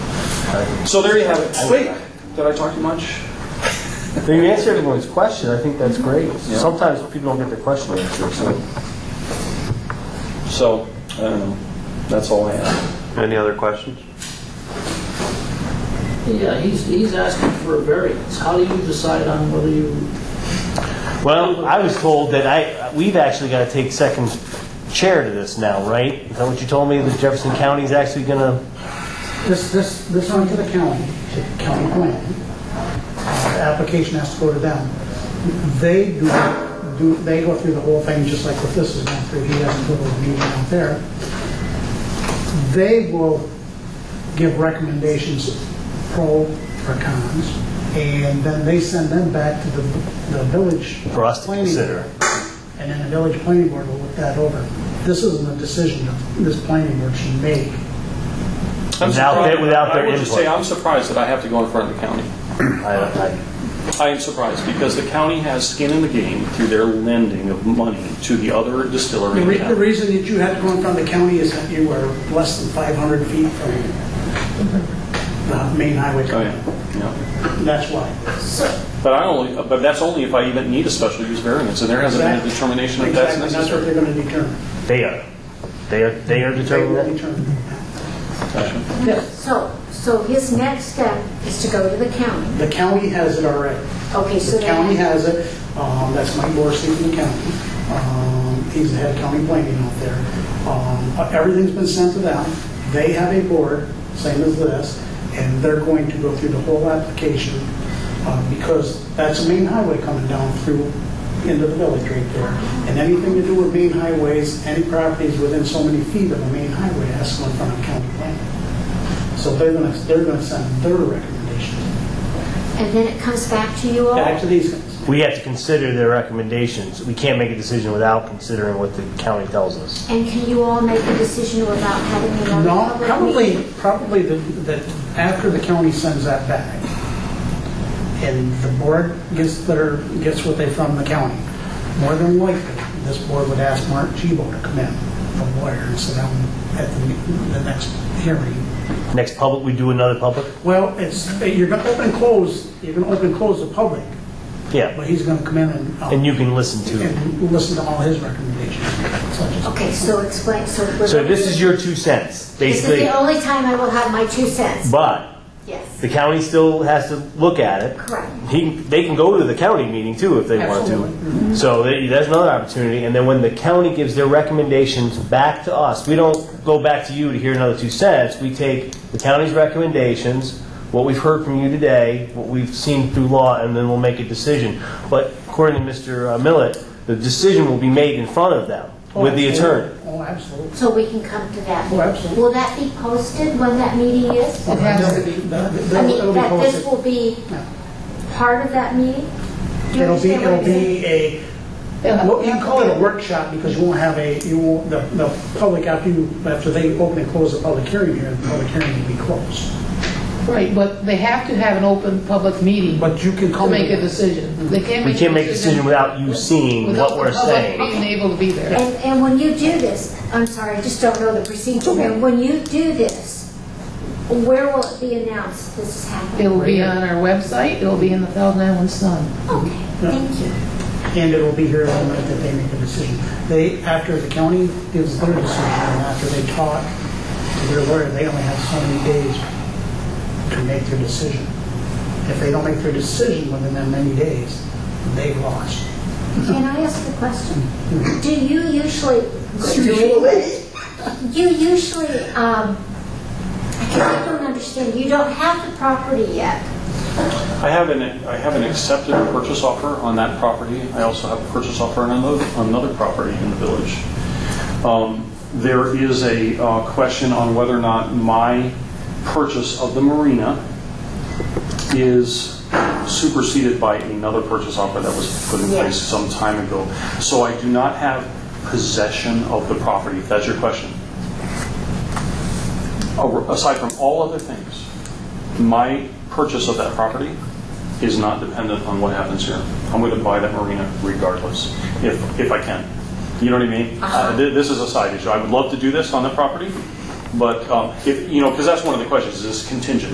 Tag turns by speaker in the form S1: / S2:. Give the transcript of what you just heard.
S1: So there you have it. Wait, did I talk too much?
S2: But you answered everyone's question, I think that's great. Sometimes people don't get their question answered, so.
S1: So, I don't know. That's all I have.
S3: Any other questions?
S4: Yeah, he's, he's asking for a variance. How do you decide on whether you,
S2: Well, I was told that I, we've actually got to take second chair to this now, right? Is that what you told me, that Jefferson County's actually gonna,
S5: This, this, this went to the county, to county plan. The Application has to go to them. They do, do, they go through the whole thing, just like what this is going through, he has to go to the meeting out there. They will give recommendations, pro or cons, and then they send them back to the, the village.
S2: for us to
S5: planning
S2: consider?
S5: and then the village planning board will look that over. This isn't a decision that this planning board should make.
S1: I'm
S2: Without their-
S1: surprised-
S2: without their
S1: I would just
S2: input.
S1: say, I'm surprised that I have to go in front of the county.
S2: I don't- I-
S1: I am surprised, because the county has skin in the game through their lending of money to the other distillery
S5: The
S1: in
S5: re- the
S1: town.
S5: reason that you had to go in front of the county is that you were less than 500 feet from the main highway.
S1: Oh, yeah, yeah.
S5: That's why.
S1: But I only, but that's only if I even need a special use variance, and there hasn't been a
S5: Exactly.
S1: determination if that's
S5: Exactly, that's what
S1: necessary.
S5: they're going to determine.
S2: They are, they are, they are
S5: They
S2: determining
S5: will
S2: that?
S5: determine. Yes,
S6: So, so his next step is to go to the county.
S5: the county has it already.
S6: Okay, so
S5: The
S6: then-
S5: county has it, um, that's Mike Morrissey from the county, um, he's the head county planning out there. Um, uh, Everything's been sent to them, they have a board, same as this, and they're going to go through the whole application, uh, because that's a main highway coming down through into the village right there. And anything to do with main highways, any properties within so many feet of a main highway has to go in front of county planning. So they're gonna, they're gonna send their recommendations
S6: And then it comes back to you all?
S5: back to these guys.
S2: We have to consider their recommendations. We can't make a decision without considering what the county tells us.
S6: And can you all make a decision without having another
S5: No,
S6: public
S5: probably,
S6: meeting?
S5: probably the, the, after the county sends that back, and the board gets their, gets what they from the county, more than likely, this board would ask Mark Chibo to come in, the lawyer, and sit down at the, the next hearing.
S2: Next public, we do another public?
S5: Well, it's, you're gonna open and close, you're gonna open and close the public,
S2: Yeah,
S5: but he's gonna come in and. um,
S2: and you can listen to it.
S5: And listen to all his recommendations, such as.
S6: Okay, so explain, so we're...
S2: So this is your two cents,
S6: This is
S2: basically.
S6: the only time I will have my two cents.
S2: But
S6: Yes,
S2: the county still has to look at it.
S6: correct.
S2: He, they can go to the county meeting too if they want to. So they- that's another opportunity. And then when the county gives their recommendations back to us, we don't go back to you to hear another two cents. We take the county's recommendations, what we've heard from you today, what we've seen through law, and then we'll make a decision. But according to Mr. Millet, the decision will be made in front of them with the attorney.
S5: Oh, absolutely.
S6: So we can come to that.
S5: Oh, absolutely.
S6: Will that be posted when that meeting is?
S5: It has to be.
S6: I mean, that this will be
S5: Yeah.
S6: part of that meeting? Do you
S5: It'll be,
S6: understand what
S5: it'll
S6: I'm saying?
S5: be a, well, you can call it a workshop because you won't have a, you won't, the, the public, after you, after they open and close the public hearing here, the public hearing will be closed.
S7: Right, but they have to have an open public meeting to
S5: But you can call.
S7: make a decision. They can't
S2: We
S7: make a decision.
S2: can't make a decision without you seeing what
S7: without the
S2: we're
S7: public
S2: saying.
S7: Being able to be there.
S6: And, and when you do this, I'm sorry, I just don't know the procedure here. When you do this, where will it be announced this is happening?
S7: It'll be on our website, it'll be in the Thousand Island Sun.
S6: Okay, thank you.
S5: And it'll be here in the minute that they make a decision. They, after the county gives their decision, and after they talk to their lawyer, they only have so many days to make their decision. If they don't make their decision within that many days, they've lost.
S6: Can I ask a question? Do you usually, you usually, um, I guess I don't understand, you don't have the property yet.
S1: I have an, I have an accepted purchase offer on that property. I also have a purchase offer on another, another property in the village. Um, There is a uh, question on whether or not my purchase of the marina is superseded by another purchase offer that was put in place some time ago. So I do not have possession of the property, if that's your question. A- Oh, Aside from all other things, my purchase of that property is not dependent on what happens here. I'm going to buy that marina regardless, if, if I can. You know what I mean? Uh, thi- This is a side issue. I would love to do this on the property, but, um, if, you know, because that's one of the questions, is this contingent?